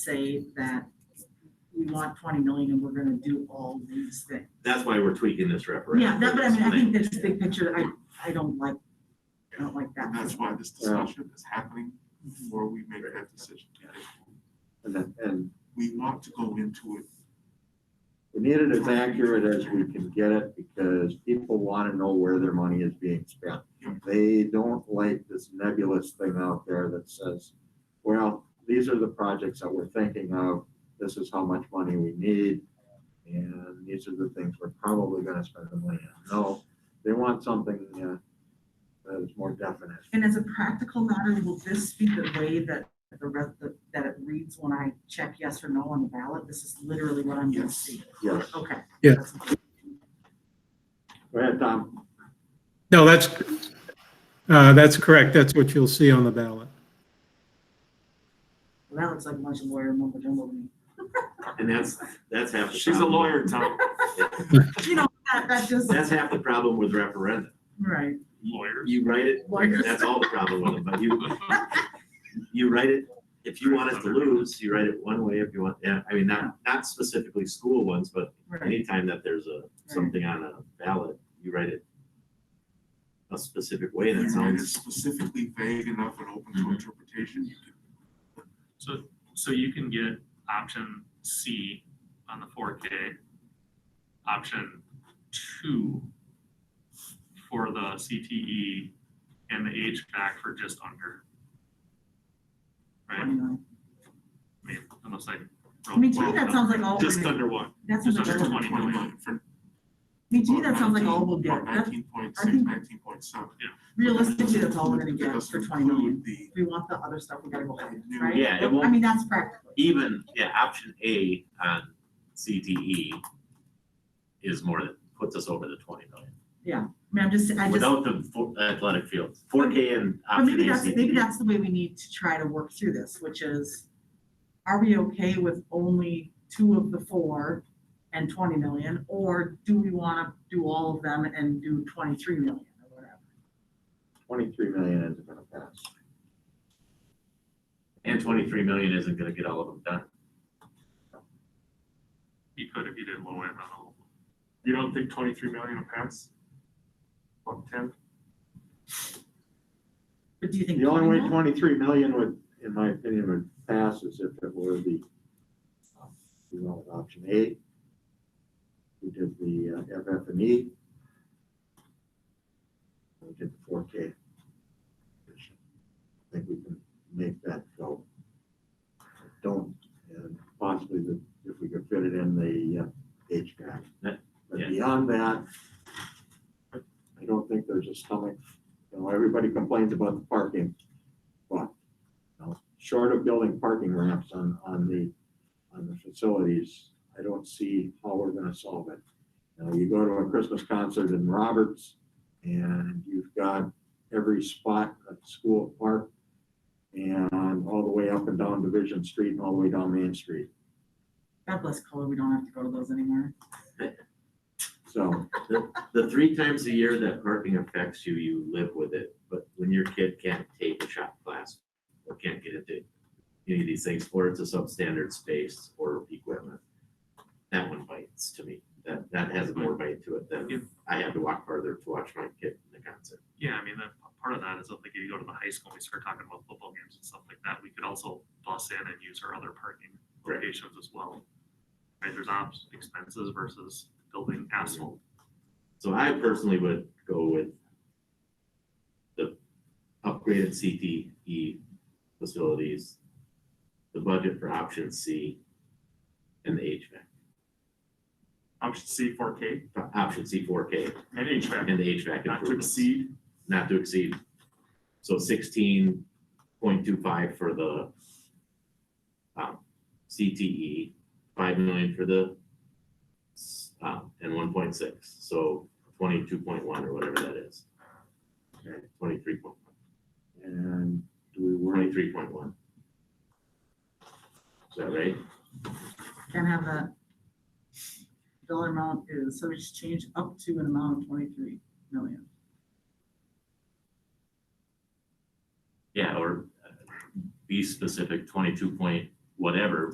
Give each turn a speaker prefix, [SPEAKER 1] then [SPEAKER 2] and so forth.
[SPEAKER 1] say that we want twenty million and we're gonna do all these things.
[SPEAKER 2] That's why we're tweaking this referendum.
[SPEAKER 1] Yeah, that, but I mean, I think this big picture, I, I don't like, I don't like that.
[SPEAKER 3] And that's why this discussion is happening before we make that decision.
[SPEAKER 4] And, that- and
[SPEAKER 3] We want to go into it.
[SPEAKER 4] we need it as accurate as we can get it because people want to know where their money is being spent. They don't like this nebulous thing out there that says, well, these are the projects that we're thinking of. This is how much money we need. And these are the things we're probably going to spend the money on. No, they want something uh, that is more definite.
[SPEAKER 1] And as a practical matter, will this be the way that the rest, that- that it reads when I check yes or no on the ballot? This is literally what I'm gonna
[SPEAKER 3] Yes.
[SPEAKER 1] see.
[SPEAKER 4] Yes.
[SPEAKER 1] Okay.
[SPEAKER 5] Yeah.
[SPEAKER 4] Go ahead, Tom.
[SPEAKER 5] No, that's, uh, that's correct. That's what you'll see on the ballot.
[SPEAKER 1] Well, that looks like a bunch of lawyer mumbo jumbo to me.
[SPEAKER 2] And that's, that's half the.
[SPEAKER 3] She's a
[SPEAKER 2] problem.
[SPEAKER 3] lawyer, Tom.
[SPEAKER 1] You know, that, that just,
[SPEAKER 2] That's half the problem with referenda.
[SPEAKER 1] right.
[SPEAKER 3] Lawyer.
[SPEAKER 2] You write it,
[SPEAKER 1] Lawyers.
[SPEAKER 2] that's all the problem with them, but you, you write it, if you want us to lose, you write it one way if you want, yeah, I mean, not, not specifically school ones, but
[SPEAKER 1] Right.
[SPEAKER 2] anytime that there's a, something on a ballot, you write it a specific way that
[SPEAKER 3] And it's
[SPEAKER 2] sounds, Mm-hmm.
[SPEAKER 3] specifically vague enough and open to
[SPEAKER 6] Mhm.
[SPEAKER 3] interpretation. You can-
[SPEAKER 6] So, so you can get option C on the four K. Option two for the CTE and the HVAC for just under. Right, I
[SPEAKER 1] Anyway.
[SPEAKER 6] mean, unless I.
[SPEAKER 1] I mean, to me, that sounds like all,
[SPEAKER 6] Just
[SPEAKER 1] that
[SPEAKER 6] under one,
[SPEAKER 1] sounds
[SPEAKER 6] just
[SPEAKER 1] like,
[SPEAKER 6] under
[SPEAKER 1] all- I
[SPEAKER 6] twenty million.
[SPEAKER 3] Twenty-one for-
[SPEAKER 1] mean, to me, that sounds like all
[SPEAKER 3] 19,
[SPEAKER 1] we'll get.
[SPEAKER 3] Or
[SPEAKER 1] That's
[SPEAKER 3] nineteen point
[SPEAKER 1] I
[SPEAKER 3] six,
[SPEAKER 1] think-
[SPEAKER 3] nineteen point seven.
[SPEAKER 1] Realistically, that's all we're gonna get for twenty million.
[SPEAKER 3] The
[SPEAKER 1] If we want the other stuff, we gotta go ahead,
[SPEAKER 3] new-
[SPEAKER 1] right?
[SPEAKER 2] Yeah, it
[SPEAKER 1] I
[SPEAKER 2] won't-
[SPEAKER 1] mean, that's practical.
[SPEAKER 2] even, yeah, option A on CTE is more that puts us over the twenty million.
[SPEAKER 1] I mean, I'm just, I just,
[SPEAKER 2] without the fo- athletic fields, four K and
[SPEAKER 1] but
[SPEAKER 2] option
[SPEAKER 1] maybe
[SPEAKER 2] A,
[SPEAKER 1] that's, maybe
[SPEAKER 2] CTE.
[SPEAKER 1] that's the way we need to try to work through this, which is, are we okay with only two of the four and twenty million? Or do we wanna do all of them and do twenty-three million or whatever?
[SPEAKER 4] Twenty-three million isn't going to pass.
[SPEAKER 2] and twenty-three million isn't gonna get all of them done.
[SPEAKER 6] You could if you did low end on all.
[SPEAKER 3] You don't think twenty-three million will pass? One ten?
[SPEAKER 1] But do you think?
[SPEAKER 4] The only
[SPEAKER 1] 20
[SPEAKER 4] way
[SPEAKER 1] million?
[SPEAKER 4] twenty-three million would, in my opinion, would pass is if it were the, you know, option eight. We did the FF and E. We did the four K. I think we can make that go. I Don't, and possibly the, if we could fit it in the uh, HVAC.
[SPEAKER 2] That-
[SPEAKER 4] But
[SPEAKER 2] yeah.
[SPEAKER 4] beyond that, I don't think there's a stomach, you know, everybody complains about the parking. But, you know, short of building parking ramps on, on the, on the facilities, I don't see how we're gonna solve it. You know, you go to a Christmas concert in Roberts and you've got every spot at the school park and all the way up and down Division Street and all the way down Main Street.
[SPEAKER 1] God bless color, we don't have to go to those anymore.
[SPEAKER 4] So,
[SPEAKER 2] The three times a year that parking affects you, you live with it, but when your kid can't take a shop class or can't get into any of these things, or it's a substandard space or equipment, that one bites to me. That, that has more bite to it
[SPEAKER 6] Yeah.
[SPEAKER 2] than I had to walk farther to watch my kid in the concert.
[SPEAKER 6] Yeah, I mean, that, part of that is like if you go to the high school, and we start talking about football games and stuff like that, we could also bus in and use our other parking
[SPEAKER 2] Right.
[SPEAKER 6] locations as well. Right, there's ops expenses versus building asphalt.
[SPEAKER 2] So I personally would go with the upgraded CTE facilities, the budget for option C, and the HVAC,
[SPEAKER 6] Option C four K
[SPEAKER 2] option C four K
[SPEAKER 6] and HVAC,
[SPEAKER 2] and the HVAC improvements, not to exceed. So sixteen point two five for the um, CTE, five million for the s- um, and one point six, so twenty-two point one or whatever that is.
[SPEAKER 4] Okay.
[SPEAKER 2] Twenty-three point one.
[SPEAKER 4] and do we worry,
[SPEAKER 2] Twenty-three point one. Is that right?
[SPEAKER 1] Can't have that. Dollar amount is, so we just change up to an amount of twenty-three million.
[SPEAKER 2] Yeah, or uh, be specific, twenty-two point whatever,